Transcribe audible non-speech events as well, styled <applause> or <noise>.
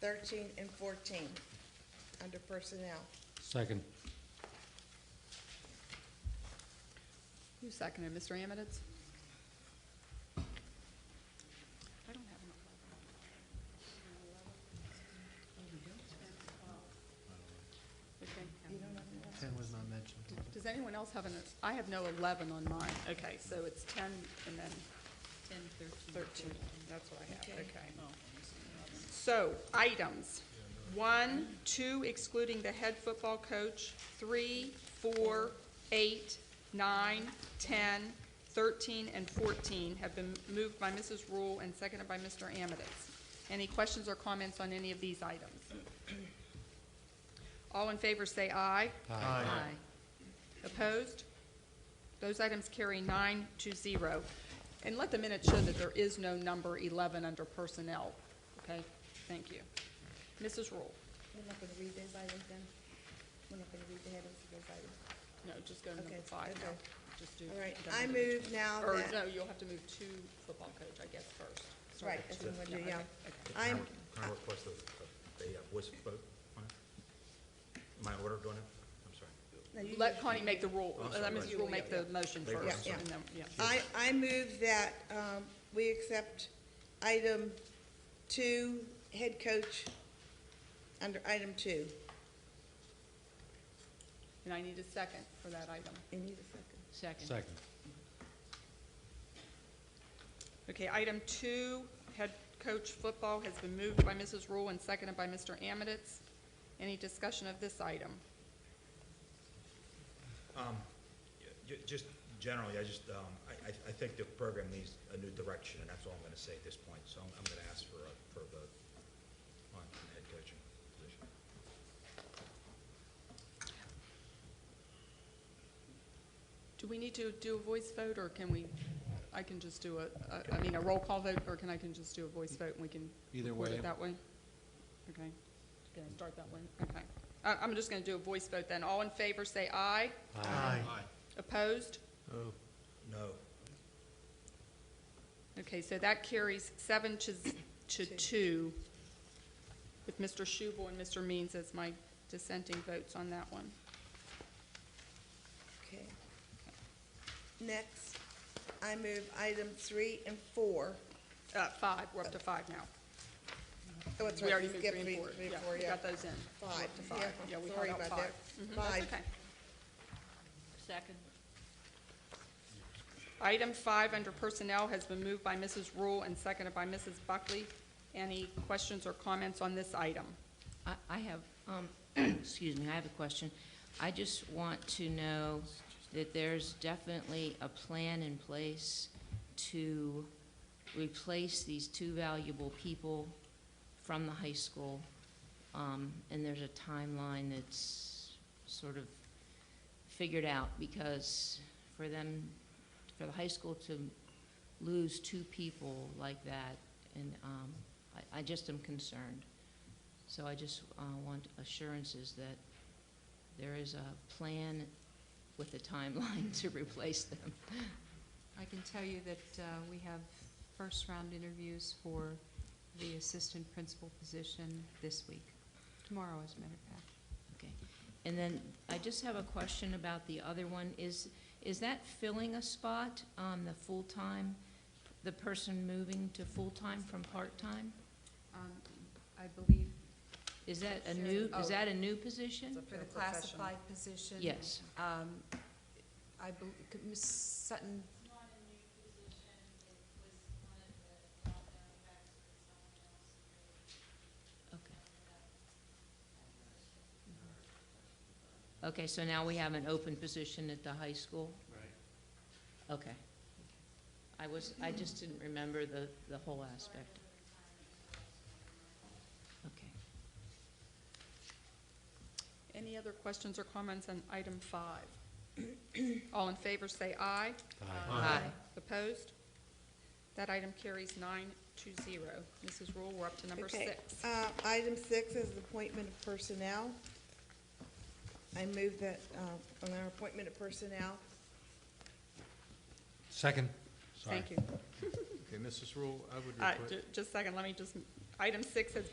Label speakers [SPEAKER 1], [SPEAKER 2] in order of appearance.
[SPEAKER 1] thirteen and fourteen, under personnel.
[SPEAKER 2] Second.
[SPEAKER 3] Who seconded, Mr. Amidits? I don't have an eleven.
[SPEAKER 4] Ten was not mentioned.
[SPEAKER 3] Okay. Does anyone else have an, I have no eleven on mine. Okay, so it's ten and then
[SPEAKER 5] Ten, thirteen. Oh,
[SPEAKER 3] thirteen. That's what I have,
[SPEAKER 1] Okay.
[SPEAKER 3] okay. So, items, one, two excluding the head football coach, three, four, eight, nine, ten, thirteen, and fourteen have been moved by Mrs. Rule and seconded by Mr. Amidits. Any questions or comments on any of these items? All in favor say aye.
[SPEAKER 4] Aye.
[SPEAKER 3] Opposed? Those items carry nine to zero. And let the minutes show that there is no number 11 under personnel. Okay? Thank you. Mrs. Rule?
[SPEAKER 1] We're not gonna read those items then? We're not gonna read the headings of those items.
[SPEAKER 3] No, just go to number
[SPEAKER 1] Okay,
[SPEAKER 3] five now.
[SPEAKER 1] okay.
[SPEAKER 3] Just do.
[SPEAKER 1] All right,
[SPEAKER 3] go
[SPEAKER 1] I
[SPEAKER 3] number two.
[SPEAKER 1] move now
[SPEAKER 3] Or,
[SPEAKER 1] that.
[SPEAKER 3] no, you'll have to move to football coach, I guess, first. Start
[SPEAKER 1] Right,
[SPEAKER 3] at
[SPEAKER 1] that's
[SPEAKER 3] two.
[SPEAKER 1] what I'm gonna do, yeah.
[SPEAKER 3] okay, okay.
[SPEAKER 1] I'm,
[SPEAKER 6] Can I request a, a- a uh, voice vote on it? Am I in order doing it? I'm sorry.
[SPEAKER 1] no, you-
[SPEAKER 3] Let Connie make the rule,
[SPEAKER 6] I'm
[SPEAKER 3] let
[SPEAKER 6] sorry,
[SPEAKER 3] Mrs.
[SPEAKER 6] right.
[SPEAKER 3] Rule make the motion
[SPEAKER 6] Yeah,
[SPEAKER 3] first.
[SPEAKER 1] yeah.
[SPEAKER 3] and then- yeah.
[SPEAKER 1] I, I move that, um, we accept item two, head coach, under item two.
[SPEAKER 3] And I need a second for that item.
[SPEAKER 1] You need a second.
[SPEAKER 5] Second.
[SPEAKER 2] Second.
[SPEAKER 3] Okay, item two, head coach football has been moved by Mrs. Rule and seconded by Mr. Amidits. Any discussion of this item?
[SPEAKER 6] Ju- Um, Just generally, I just, um, I, I- I think the program needs a new direction, and that's all I'm going to say at this point. So I'm, I'm going to ask for a, for a vote on the head coaching position.
[SPEAKER 3] Do we need to do a voice vote, or can we, I can just do a- a, I mean, a roll call vote, or can I can just do a voice vote and we can
[SPEAKER 2] Either
[SPEAKER 3] record
[SPEAKER 2] way.
[SPEAKER 3] it that way? Okay, gonna start that way, okay. I, I'm just gonna do a voice vote then. All in favor, say aye.
[SPEAKER 4] Aye.
[SPEAKER 3] Opposed?
[SPEAKER 4] Oh,
[SPEAKER 6] No,
[SPEAKER 3] Okay, so that carries seven to, z- to two, with Mr. Schubel and Mr. Means as my dissenting votes on that one.
[SPEAKER 1] Okay. Next, I move item three and four.
[SPEAKER 3] Uh, five, we're up to five now.
[SPEAKER 1] Oh, that's
[SPEAKER 3] We
[SPEAKER 1] right,
[SPEAKER 3] already
[SPEAKER 1] we
[SPEAKER 3] moved
[SPEAKER 1] skipped
[SPEAKER 3] three and
[SPEAKER 1] three,
[SPEAKER 3] four,
[SPEAKER 1] three and
[SPEAKER 3] yeah,
[SPEAKER 1] four,
[SPEAKER 3] we
[SPEAKER 1] yeah.
[SPEAKER 3] got those in. We're
[SPEAKER 1] Five,
[SPEAKER 3] up to
[SPEAKER 1] yeah,
[SPEAKER 3] five, yeah, we
[SPEAKER 1] sorry
[SPEAKER 3] held out
[SPEAKER 1] about
[SPEAKER 3] five.
[SPEAKER 1] that.
[SPEAKER 3] Mhm,
[SPEAKER 1] Five. Mm-hmm.
[SPEAKER 3] That's okay.
[SPEAKER 5] Second.
[SPEAKER 3] Item five under personnel has been moved by Mrs. Rule and seconded by Mrs. Buckley. Any questions or comments on this item?
[SPEAKER 5] I, I have, um, <clears throat> excuse me, I have a question. I just want to know that there's definitely a plan in place to replace these two valuable people from the high school. Um, and there's a timeline that's sort of figured out because for them, for the high school to lose two people like that, and, um, I, I just am concerned. So I just uh, want assurances that there is a plan with a timeline <laughs> to replace them.
[SPEAKER 7] I can tell you that uh, we have first-round interviews for the assistant principal position this week, tomorrow, as a matter of fact.
[SPEAKER 5] Okay. And then I just have a question about the other one. Is, is that filling a spot on the full-time, the person moving to full-time from part-time?
[SPEAKER 7] Um, I believe
[SPEAKER 5] Is that a new, is that a new position?
[SPEAKER 7] for the classified position.
[SPEAKER 5] Yes.
[SPEAKER 7] um, I believe, Ms. Sutton,
[SPEAKER 8] not a new position, it was one of the, not known factors, someone else
[SPEAKER 5] Okay. Okay, so now we have an open position at the high school? Right. Okay. I was, I just didn't remember the, the whole aspect. Okay.
[SPEAKER 3] Any other questions or comments on item five? All in favor, say aye.
[SPEAKER 5] Aye.
[SPEAKER 3] Opposed? That item carries nine to zero. Mrs. Rule, we're up to number
[SPEAKER 1] Okay.
[SPEAKER 3] six.
[SPEAKER 1] Uh, item six is appointment of personnel. I move that, uh, on our appointment of personnel,
[SPEAKER 2] Second.
[SPEAKER 3] Thank you.
[SPEAKER 4] okay, Mrs. Rule, I would
[SPEAKER 3] Uh,
[SPEAKER 4] request.
[SPEAKER 3] ju- Just a second, let me just, item six has been